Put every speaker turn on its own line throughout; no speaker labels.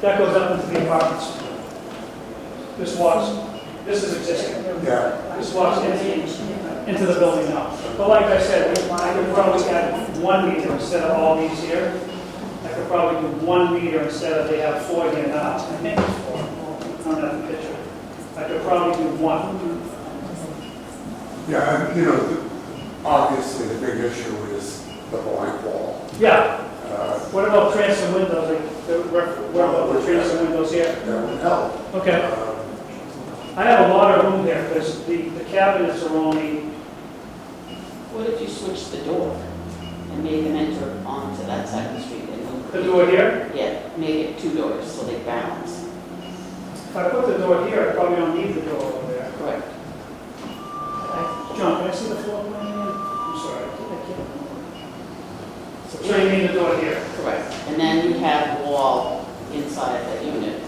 That goes up into the apartments. This was, this is existing.
Yeah,
This was empty into the building now. But like I said, we- I could probably add one meter instead of all these here. I could probably do one meter instead of they have four here now. I think it's four on that picture. I could probably do one.
yeah, and, you know, the- obviously the big issue is the blank wall.
Yeah,
Uh,
what about transom windows? Like, the- What about the transom windows here?
That would help.
Okay.
Uh,
I have a lot of room there because the the cabinets are only
What if you switched the door and made them enter onto that side of the street and
The door here,
Yeah, make it two doors so they balance.
if I put the door here, I probably don't need the door over there.
Correct.
John, can I see the floor plan? I'm sorry. I can't- I can't. So you mean the door here?
Correct. And then you have wall inside that unit.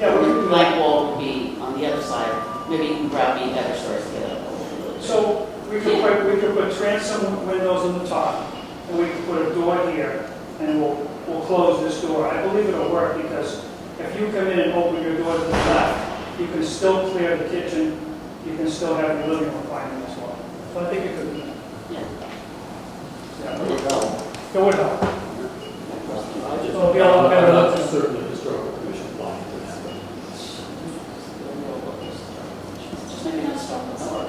Yeah, we can do that.
Like wall would be on the other side, maybe you can grab the other stairs to get up a little bit.
So we could put, we could put transom windows on the top, and we could put a door here, and we'll, we'll close this door. I believe it'll work because if you come in and open your door to the left, you can still clear the kitchen, you can still have your living room finding as well. So I think it could,
Yeah.
That would help.
it would help.
I just-
It'll be a lot better.
I'm not too certain the historical commission wanted to have it.
Just maybe not start with door.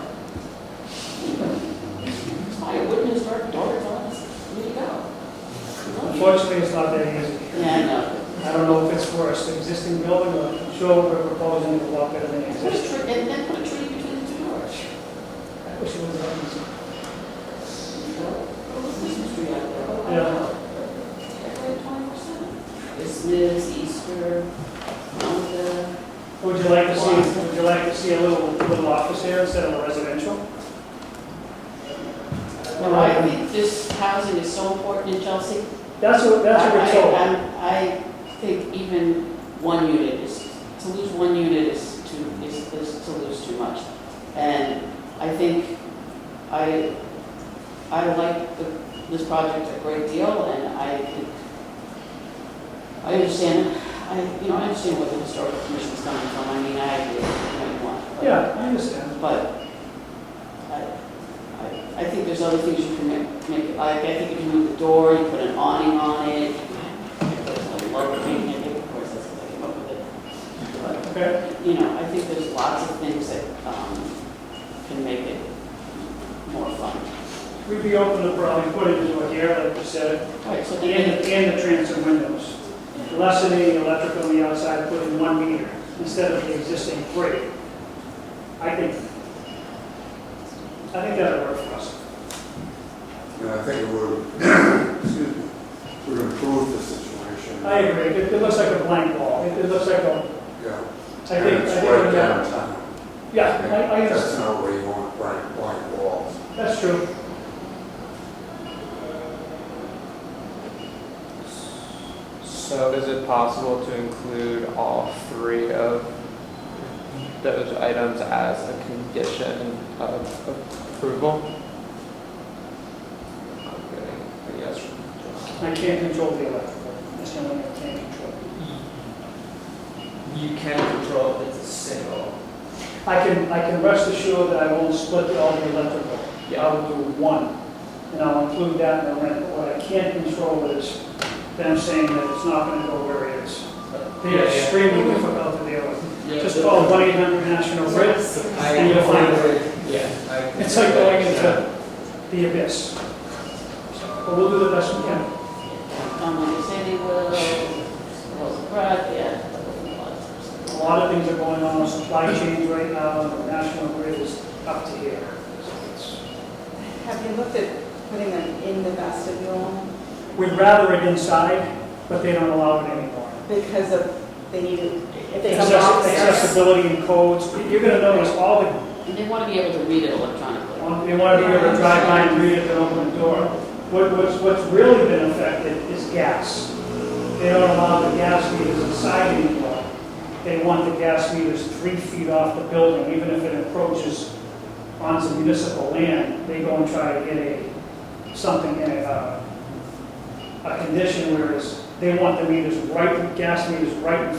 Why, it wouldn't start doors on us? There you go.
Unfortunately, it's not that easy.
Yeah, I know.
I don't know if it's worse, the existing building, or I'm sure we're proposing a lot better than
Put a
existing.
tree, and then put a tree between the two doors.
I wish it was that easy. Yeah.
Yeah. Christmas, Easter, Hanukkah.
Would you like to see, would you like to see a little, little office here instead of a residential?
Well, I think this housing is so important in Chelsea.
That's what, that's what we're
I- I-
told.
I'm- I think even one unit is, to lose one unit is too, is, is to lose too much. And I think I, I like the- this project a great deal and I think, I understand, I, you know, I understand where the historical commission's coming from. I mean, I agree with what you want. but-
Yeah, I understand.
but I, I, I think there's other things you can make, make, like, I think if you move the door, you put an awning on it. There's like love painting, I think, of course, that's what I came up with it.
Okay,
But, you know, I think there's lots of things that, um, can make it more fun.
we'd be open to probably putting it into here, like you said,
Right, so
and,
then,
and the transom windows. Lessening the electric on the outside, put in one meter instead of the existing three. I think, I think that'd work for us.
And I think it would, excuse me, would improve the situation.
I agree, it, it looks like a blank wall, it, it looks like a,
Yeah.
I
And
think, I
it's
think,
right
yeah,
downtown.
yeah, I, I,
That's
understand.
not where you want blank, blank walls.
that's true.
So is it possible to include all three of those items as a condition of approval? Okay, yes.
I can't control the electrical, that's the only thing I can't control.
You can control if it's a single.
I can, I can rest assured that I won't split all the electrical. I
Yeah.
will do one, and I'll include that in the rent. But What I can't control is them saying that it's not gonna go where it is. They are extremely difficult to deal with. Just call one eight hundred National Grid,
I
and you'll find
Yeah. I-
it's like going into the abyss. But we'll do the best we can.
um, when they say they will, close the garage, yeah. that wasn't a lot of stuff.
A lot of things are going on, in supply chain right now, and the National Grid is up to here. So it's-
Have you looked at putting them in the vestibule
We'd rather it inside, but they don't allow it anymore.
because of, they need, to- if they come
Access-
downstairs?
Accessibility and codes, you're gonna notice all the,
And they want to be able to read it electronically.
they want to be able to drive by and read it and open the door. What, what's, what's really been affected is gas. They don't allow the gas meters inside anymore. They want the gas meters three feet off the building, even if it encroaches onto municipal land, they go and try to get a, something in a, uh, a condition whereas they want the meters right, gas meters right in